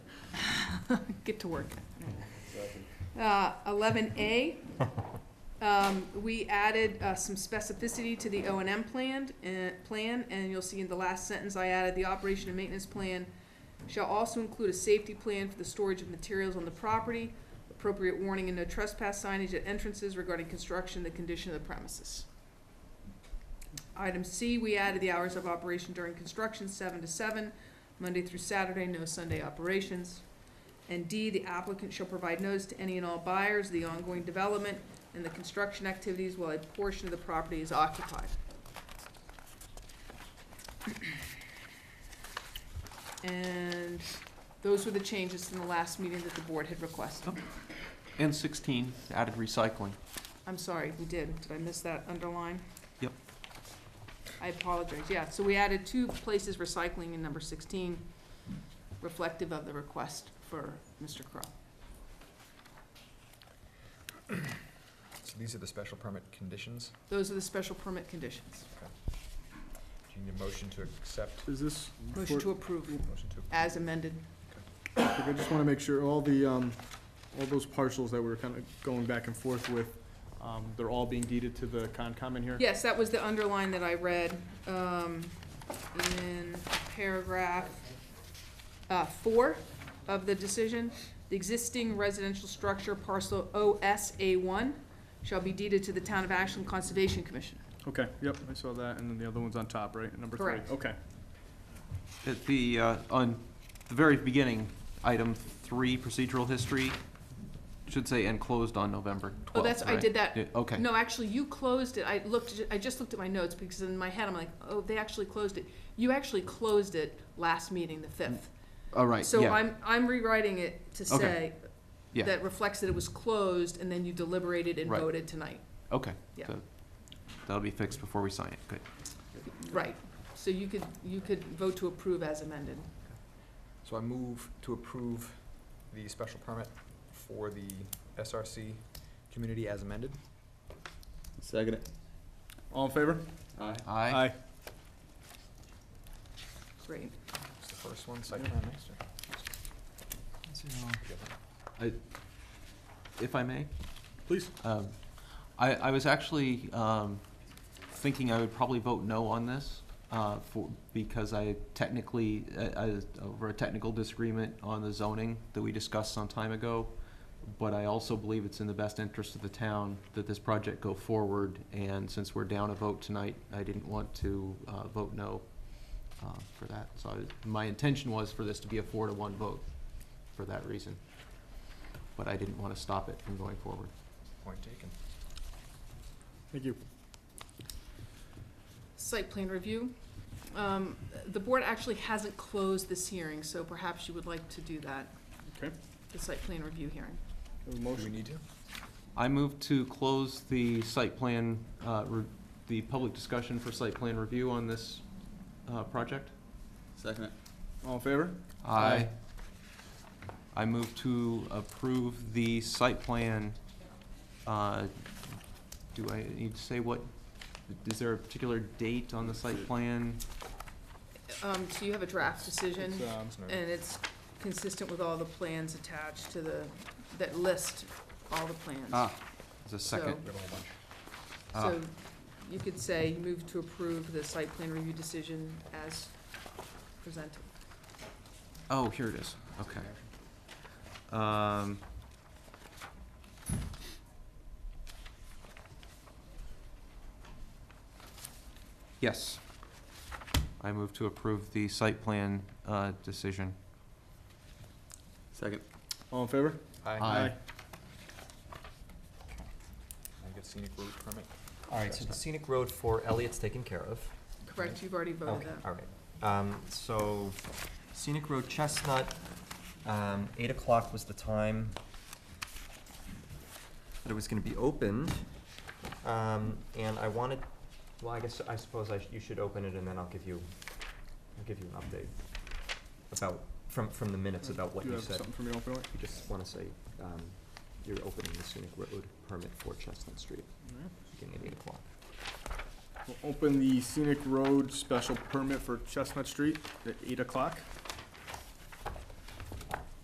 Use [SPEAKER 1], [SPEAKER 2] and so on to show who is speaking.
[SPEAKER 1] get to work. Uh, eleven A, um, we added, uh, some specificity to the O and M planned, uh, plan, and you'll see in the last sentence, I added, the operation and maintenance plan shall also include a safety plan for the storage of materials on the property, appropriate warning and no trespass signage at entrances regarding construction, the condition of the premises. Item C, we added the hours of operation during construction, seven to seven, Monday through Saturday, no Sunday operations. And D, the applicant shall provide notice to any and all buyers of the ongoing development and the construction activities while a portion of the property is occupied. And those were the changes from the last meeting that the board had requested.
[SPEAKER 2] And sixteen, added recycling.
[SPEAKER 1] I'm sorry, we did. Did I miss that underline?
[SPEAKER 2] Yep.
[SPEAKER 1] I apologize. Yeah, so we added two places recycling in number sixteen, reflective of the request for Mr. Crow.
[SPEAKER 3] So these are the special permit conditions.
[SPEAKER 1] Those are the special permit conditions.
[SPEAKER 3] Do you need a motion to accept?
[SPEAKER 4] Is this, for-
[SPEAKER 1] Motion to approve
[SPEAKER 3] Motion to approve?
[SPEAKER 1] as amended.
[SPEAKER 4] like, I just want to make sure, all the, um, all those parcels that we're kind of going back and forth with, um, they're all being deeded to the Concom in here?
[SPEAKER 1] Yes, that was the underline that I read, um, in paragraph, uh, four of the decision. The existing residential structure parcel OSA one shall be deeded to the Town of Ashland Conservation Commission. Oh,
[SPEAKER 4] Okay, yep, I saw that, and then the other one's on top, right, number three?
[SPEAKER 1] Correct.
[SPEAKER 4] Okay,
[SPEAKER 2] At the, uh, on the very beginning, item three, procedural history, should say and closed on November twelfth,
[SPEAKER 1] Oh, that's, I did that.
[SPEAKER 2] Yeah, okay.
[SPEAKER 1] No, actually, you closed it. I looked, I just looked at my notes because in my head, I'm like, oh, they actually closed it. You actually closed it last meeting, the fifth.
[SPEAKER 2] All right,
[SPEAKER 1] So
[SPEAKER 2] yeah,
[SPEAKER 1] I'm, I'm rewriting it to
[SPEAKER 2] Okay.
[SPEAKER 1] say
[SPEAKER 2] Yeah.
[SPEAKER 1] that reflects that it was closed and then you deliberated and
[SPEAKER 2] Right.
[SPEAKER 1] voted tonight.
[SPEAKER 2] okay.
[SPEAKER 1] Yeah.
[SPEAKER 2] So That'll be fixed before we sign it, good.
[SPEAKER 1] Right. So you could, you could vote to approve as amended.
[SPEAKER 3] So I move to approve the special permit for the SRC community as amended.
[SPEAKER 5] Second it.
[SPEAKER 4] all in favor?
[SPEAKER 5] Aye.
[SPEAKER 2] Aye.
[SPEAKER 1] Great.
[SPEAKER 3] It's the first one, site plan next or? Yeah.
[SPEAKER 2] If I may?
[SPEAKER 4] Please.
[SPEAKER 2] Um, I, I was actually um, thinking I would probably vote no on this uh, for, because I technically, uh, uh, over a technical disagreement on the zoning that we discussed some time ago, but I also believe it's in the best interest of the town that this project go forward, and since we're down a vote tonight, I didn't want to uh, vote no uh, for that. So I- my intention was for this to be a four to one vote for that reason, but I didn't want to stop it from going forward.
[SPEAKER 3] Point taken.
[SPEAKER 4] Thank you.
[SPEAKER 1] Site plan review. Um, The board actually hasn't closed this hearing, so perhaps you would like to do that.
[SPEAKER 4] Okay.
[SPEAKER 1] The site plan review hearing.
[SPEAKER 4] Have
[SPEAKER 3] Do
[SPEAKER 4] a
[SPEAKER 3] we
[SPEAKER 4] motion?
[SPEAKER 3] need to?
[SPEAKER 2] I move to close the site plan, uh, re- the public discussion for site plan review on this uh, project.
[SPEAKER 5] Second it.
[SPEAKER 4] All in favor?
[SPEAKER 2] I I move to approve the site plan. uh, Do I need to say what, is there a particular date on the site plan?
[SPEAKER 1] Um, So you have a draft decision,
[SPEAKER 4] It's, um,
[SPEAKER 3] It's no-
[SPEAKER 1] and it's consistent with all the plans attached to the, that list all the plans.
[SPEAKER 2] Ah, there's a second.
[SPEAKER 1] So-
[SPEAKER 3] We have a whole bunch.
[SPEAKER 2] ah.
[SPEAKER 1] So you could say move to approve the site plan review decision as presented.
[SPEAKER 2] Oh, here it is, okay. Um. Yes. I move to approve the site plan, uh, decision.
[SPEAKER 5] Second.
[SPEAKER 4] All in favor?
[SPEAKER 2] Aye.
[SPEAKER 3] I get scenic road permit.
[SPEAKER 6] All right, so the scenic road for Elliot's taken care of.
[SPEAKER 1] Correct, you've already voted
[SPEAKER 6] Okay,
[SPEAKER 1] that.
[SPEAKER 6] all right. Um, so scenic road Chestnut, um, eight o'clock was the time that it was gonna be opened. Um, and I wanted, well, I guess, I suppose I, sh- you should open it and then I'll give you, I'll give you an update about, from, from the minutes about what
[SPEAKER 4] Do you
[SPEAKER 6] you
[SPEAKER 4] have
[SPEAKER 6] said.
[SPEAKER 4] something for me, open
[SPEAKER 6] I just wanna say, um, you're opening the scenic road permit for Chestnut Street, beginning at eight o'clock.
[SPEAKER 4] We'll open the scenic road special permit for Chestnut Street at eight o'clock.